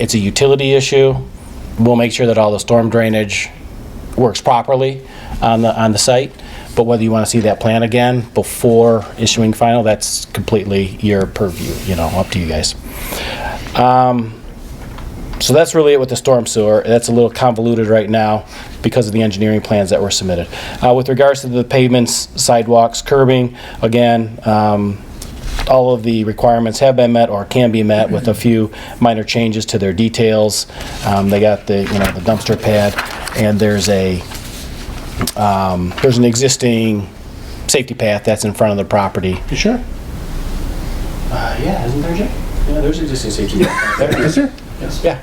It's a utility issue. We'll make sure that all the storm drainage works properly on the, on the site. But whether you want to see that plan again before issuing final, that's completely your purview, you know, up to you guys. Um, So that's really it with the storm sewer. That's a little convoluted right now because of the engineering plans that were submitted. Uh, with regards to the pavements, sidewalks, curbing, again, um, all of the requirements have been met or can be met with a few minor changes to their details. Um, they got the, you know, the dumpster pad and there's a, um, there's an existing safety path that's in front of the property. You sure? Yeah, isn't there, Jay? Yeah, there's existing safety. Is there? Yeah.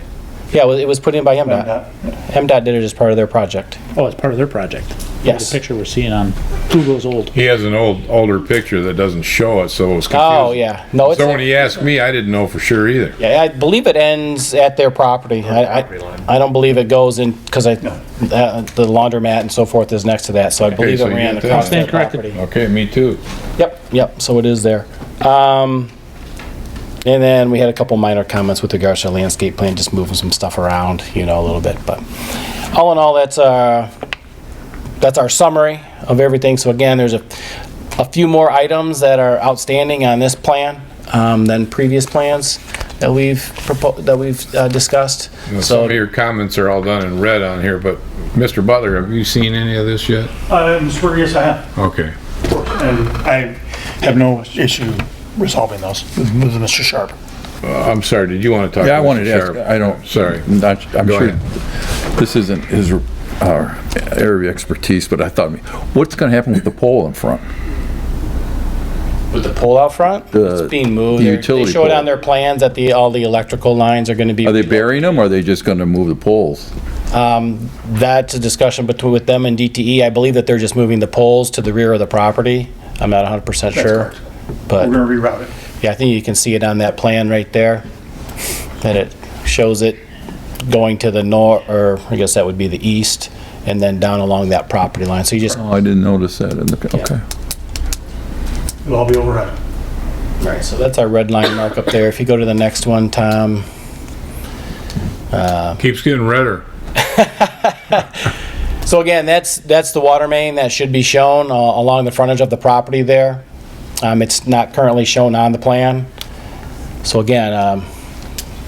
Yeah, well, it was put in by MDOT. MDOT did it as part of their project. Oh, it's part of their project. Yes. The picture we're seeing on Google's old. He has an old, older picture that doesn't show it, so it was confusing. Oh, yeah. No, it's. So when he asked me, I didn't know for sure either. Yeah, I believe it ends at their property. I, property I, line. I don't believe it goes in, because I, uh, the laundromat and so forth is next to that, so I believe it so you ran get that. across their Stand corrected. property. Okay, me too. Yep, yep, so it is there. Um, and then we had a couple minor comments with regards to our landscape plan, just moving some stuff around, you know, a little bit, but all in all, that's, uh, that's our summary of everything. So again, there's a, a few more items that are outstanding on this plan, um, than previous plans that we've proposed, that we've, uh, discussed. Some So of your comments are all done in red on here, but Mr. Butler, have you seen any of this yet? Uh, I'm sure, yes, I have, Okay. and I have no issue resolving those with with Mr. Sharp. I'm sorry, did you want to talk? Yeah, I Mr. wanted to ask, Sharp? I don't. Sorry. Not, I'm Go sure ahead. this isn't his, our area of expertise, but I thought, what's gonna happen with the pole in front? with the pole out front, The- it's being moved. the They're- They utility showed pole. on their plans that the, all the electrical lines are gonna be. Are they burying them, or are they just gonna move the poles? That's a discussion between, with them and DTE. I believe that they're just moving the poles to the rear of the property. I'm not 100% sure. correct. We're But, gonna reroute it. yeah, I think you can see it on that plan right there, that it shows it going to the nor, or I guess that would be the east, and then down along that property line. So you just, Oh, I didn't notice that, in the- okay. It'll all be overhead. right, so that's our red line mark up there. If you go to the next one, Tom, uh, Keeps getting redder. So again, that's, that's the water main that should be shown uh, along the frontage of the property there. Um, It's not currently shown on the plan. So again, um,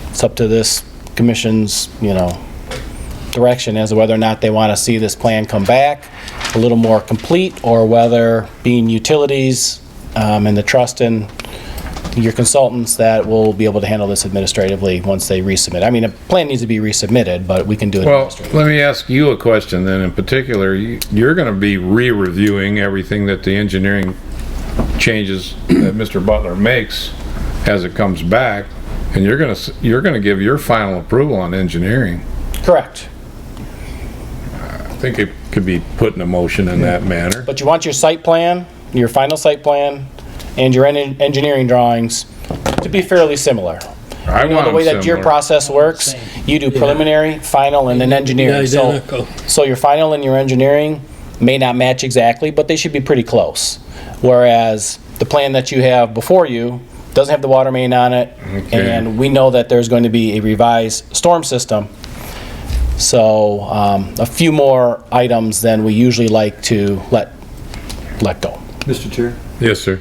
it's up to this commission's, you know, direction as to whether or not they want to see this plan come back a little more complete, or whether being utilities um, and the trust in your consultants that will be able to handle this administratively once they resubmit. I mean, a plan needs to be resubmitted, but we can do it Well, administratively. let me ask you a question then in particular. You- You're going to be re-reviewing everything that the engineering changes that Mr. Butler makes as it comes back, and you're going to, you're going to give your final approval on engineering. Correct. I think it could be put in a motion in that manner. But you want your site plan, your final site plan, and your en- engineering drawings to be fairly similar. I You know, want the way that your similar. process works, you do preliminary, final, and then engineering. So, Identical. so your final and your engineering may not match exactly, but they should be pretty close. Whereas the plan that you have before you doesn't have the water main on it, Okay. and we know that there's going to be a revised storm system. So, um, a few more items than we usually like to let, let go. Mr. Chair? Yes, sir.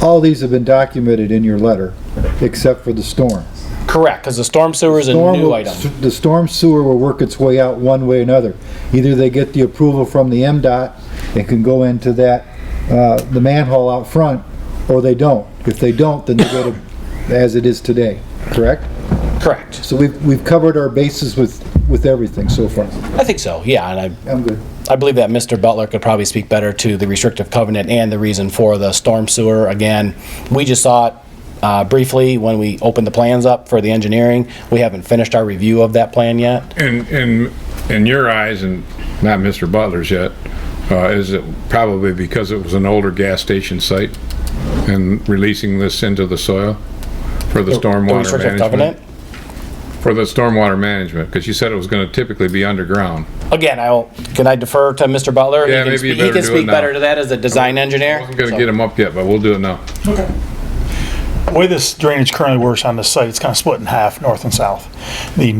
All these have been documented in your letter, except for the storm. Correct, because the storm sewer is a Storm new will- item. The storm sewer will work its way out one way or another. Either they get the approval from the MDOT and can go into that, uh, the manhole out front, or they don't. If they don't, then they go to, as it is today, correct? Correct. So we've, we've covered our bases with, with everything so far. I think so, yeah, and I, I'm good. I believe that Mr. Butler could probably speak better to the restrictive covenant and the reason for the storm sewer. Again, we just saw it uh, briefly when we opened the plans up for the engineering. We haven't finished our review of that plan yet. In, in, in your eyes, and not Mr. Butler's yet, uh, is it probably because it was an older gas station site and releasing this into the soil for the The stormwater restrictive management? covenant. For the stormwater management, because you said it was gonna typically be underground. Again, I will, can I defer to Mr. Butler? He Yeah, can maybe you speak- better He can do it speak now. better to that as a design engineer. I'm gonna So- get them up yet, but we'll do it now. way this drainage currently works on this site, it's kind of split in half, north and south. The